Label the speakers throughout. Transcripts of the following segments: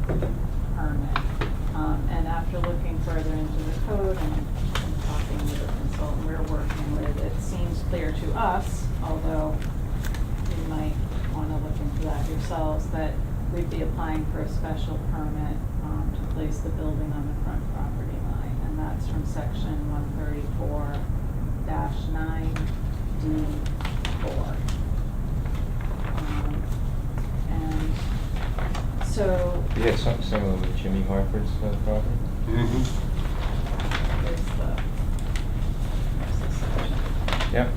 Speaker 1: permit. Um, and after looking further into the code and and talking with the consultant we're working with, it seems clear to us, although you might wanna look into that yourselves, that we'd be applying for a special permit, um, to place the building on the front property line, and that's from section one thirty-four nine D four. Um, And so
Speaker 2: You had something similar with Jimmy Harford's uh, property?
Speaker 3: Mm-hmm.
Speaker 1: there's the, there's the section.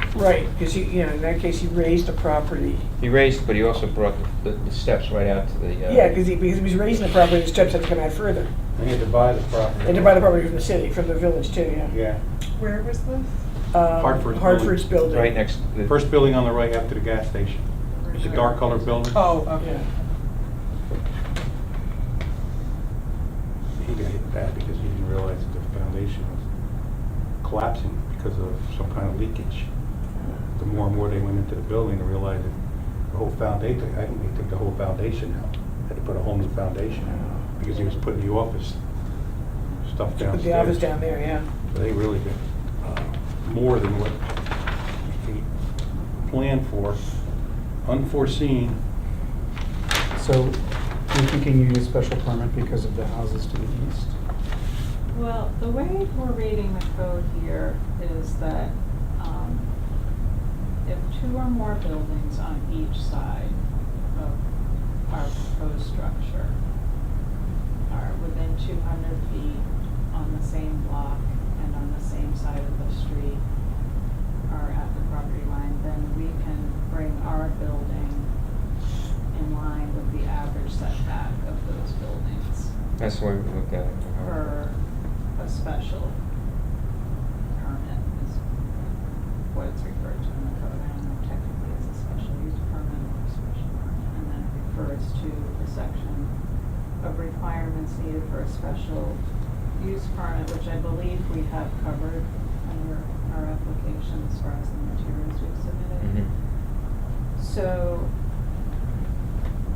Speaker 2: Yep.
Speaker 4: Right, because he, you know, in that case, he raised the property.
Speaker 2: He raised, but he also brought the, the steps right out to the. uh,
Speaker 4: Yeah, because he, because he was raising the property, the steps had to come out further.
Speaker 3: I need to buy the property.
Speaker 4: And to buy the property from the city, from the village too, yeah.
Speaker 3: Yeah.
Speaker 5: Where was this?
Speaker 4: Um,
Speaker 3: Hartford's building.
Speaker 4: Hartford's building.
Speaker 2: Right next to the.
Speaker 3: First building on the right after the gas station. It's a dark colored building.
Speaker 5: Oh, okay.
Speaker 4: Yeah.
Speaker 3: He got hit bad because he didn't realize that the foundation was collapsing because of some kind of leakage. The more and more they went into the building, they realized that the whole foundation, I think they took the whole foundation out. Had to put a whole new foundation in because he was putting the office stuff
Speaker 4: To
Speaker 3: downstairs.
Speaker 4: Put the office down there, yeah.
Speaker 3: They really did uh, more than what he planned for, unforeseen.
Speaker 6: So you're thinking you need a special permit because of the houses to the east?
Speaker 1: Well, the way we're reading the code here is that, um, if two or more buildings on each side of our proposed structure are within two hundred feet on the same block and on the same side of the street are at the property line, then we can bring our building in line with the average setback of those buildings
Speaker 2: That's the way we looked at it. for Hartford.
Speaker 1: for a special permit is what it's referred to in the code. I don't know technically it's a special use permit or a special permit. And then it refers to the section of requirements needed for a special use permit, which I believe we have covered under our application as far as the materials we've submitted.
Speaker 2: Mhm.
Speaker 1: So,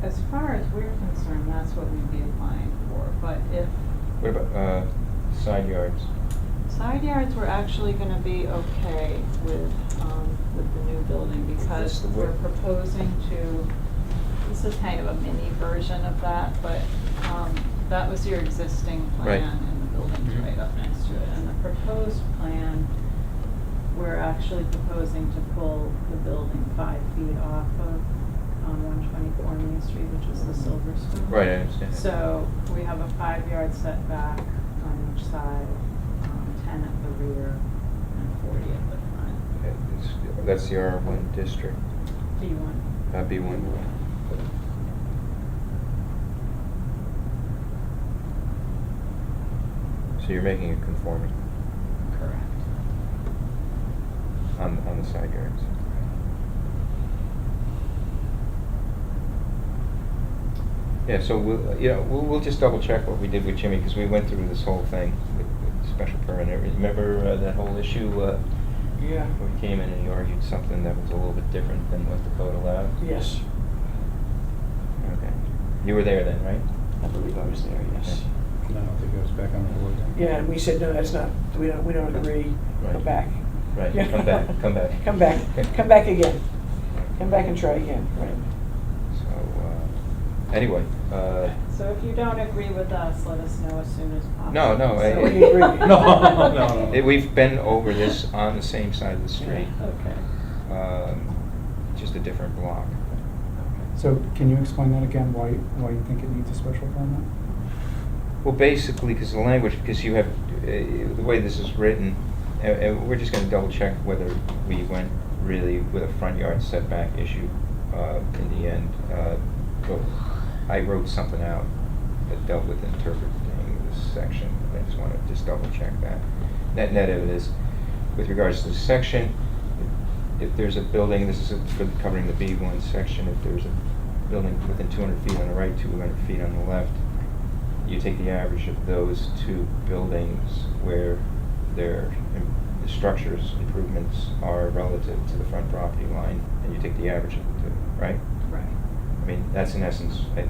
Speaker 1: as far as we're concerned, that's what we'd be applying for, but if
Speaker 2: What about, uh, side yards?
Speaker 1: side yards were actually gonna be okay with, um, with the new building
Speaker 2: Is this
Speaker 1: because
Speaker 2: the
Speaker 1: we're
Speaker 2: wood?
Speaker 1: proposing to, this is kind of a mini version of that, but, um, that was your existing
Speaker 2: Right.
Speaker 1: plan and the building's
Speaker 2: Mhm.
Speaker 1: right up next to it. And the proposed plan, we're actually proposing to pull the building five feet off of, um, one twenty-four Main Street, which is the Silver Spoon.
Speaker 2: Right, I understand.
Speaker 1: So we have a five-yard setback on each side, um, ten at the rear and forty at the front.
Speaker 2: It's- That's the R one district,
Speaker 1: Do you want?
Speaker 2: uh, B one. So you're making it conforming
Speaker 1: Correct.
Speaker 2: on, on the side yards. Yeah, so we'll, yeah, we'll, we'll just double check what we did with Jimmy, because we went through this whole thing with, with the special permit. and everything. Remember uh, that whole issue, uh,
Speaker 4: Yeah.
Speaker 2: where he came in and he argued something that was a little bit different than what the code allowed?
Speaker 4: Yes,
Speaker 2: Okay. You were there then, right?
Speaker 4: I believe I was there, yes.
Speaker 3: And I don't think it was back on the board then.
Speaker 4: Yeah, and we said, no, that's not, we don't, we don't agree,
Speaker 2: Right.
Speaker 4: come back.
Speaker 2: Right, come back, come back.
Speaker 4: Come back, come back again, come back and try again, right.
Speaker 2: So, uh, anyway, uh,
Speaker 1: So if you don't agree with us, let us know as soon as possible.
Speaker 2: No, no, I-
Speaker 1: So-
Speaker 4: We agree. No,
Speaker 3: no, no.
Speaker 2: Um, it- we've been over this on the same side of the street,
Speaker 1: Okay.
Speaker 2: um, just a different block.
Speaker 6: So can you explain that again, why, why you think it needs a special permit?
Speaker 2: Well, basically, because the language, because you have, uh, the way this is written, uh, uh, we're just gonna double check whether we went really with a front yard setback issue uh, in the end. Uh, but I wrote something out that dealt with interpreting this section, I just wanna just double check that. Net, net of it is, with regards to the section, if there's a building, this is for covering the B one section, if there's a building within two hundred feet on the right, two hundred feet on the left, you take the average of those two buildings where their im- the structures improvements are relative to the front property line, and you take the average of the two, right?
Speaker 1: Right.
Speaker 2: I mean, that's in essence, I